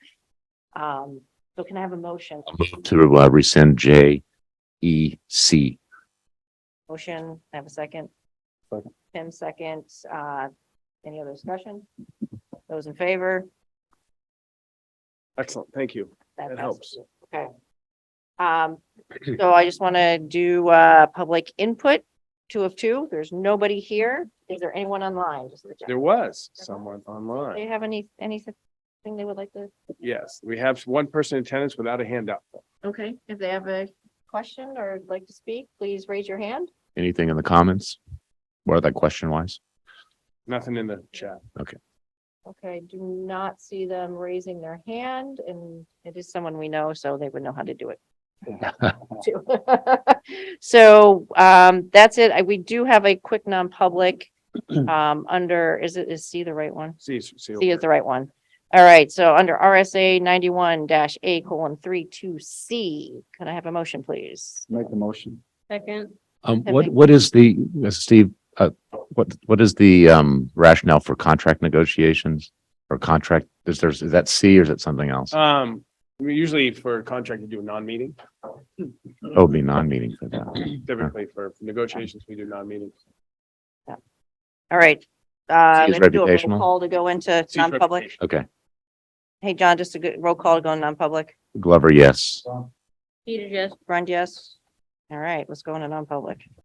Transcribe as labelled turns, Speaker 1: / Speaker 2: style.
Speaker 1: Um, so can I have a motion?
Speaker 2: I'll move to uh, rescind J E C.
Speaker 1: Motion, I have a second.
Speaker 3: Second.
Speaker 1: Tim seconds, uh, any other discussion? Those in favor?
Speaker 3: Excellent, thank you.
Speaker 1: That
Speaker 3: That
Speaker 1: passes. Okay. Um, so I just want to do, uh, public input, two of two. There's nobody here. Is there anyone online? Just to check.
Speaker 3: There was someone online.
Speaker 1: Do you have any, anything they would like to?
Speaker 3: Yes, we have one person in attendance without a handout.
Speaker 1: Okay, if they have a question or would like to speak, please raise your hand.
Speaker 2: Anything in the comments? What that question wise?
Speaker 3: Nothing in the chat.
Speaker 1: Okay, do not see them raising their hand and it is someone we know, so they would know how to do it. too. So um, that's it. I- We do have a quick non-public um, under, is it, is C the right one?
Speaker 3: See, see.
Speaker 1: C is the right one. All right, so under RSA ninety-one dash A colon three two C, can I have a motion, please?
Speaker 3: Make the motion.
Speaker 1: Second.
Speaker 2: Um,
Speaker 1: I
Speaker 2: what,
Speaker 1: think-
Speaker 2: what is the, uh, Steve, uh, what, what is the, um, rationale for contract negotiations? Or contract, is there's, is that C or is it something else?
Speaker 3: Um, we usually for a contract, you do a non-meeting.
Speaker 2: Oh, it'd be non-meeting for that.
Speaker 3: uh, Typically for negotiations, we do non-meeting.
Speaker 1: All right. Uh,
Speaker 2: C is
Speaker 1: let's do a roll
Speaker 2: reputational.
Speaker 1: Call to go into
Speaker 3: Cease
Speaker 1: non-public.
Speaker 3: reputation.
Speaker 2: Okay.
Speaker 1: Hey, John, just a good roll call to go in non-public.
Speaker 2: Glover, yes.
Speaker 1: Grund, yes. All right, let's go into non-public.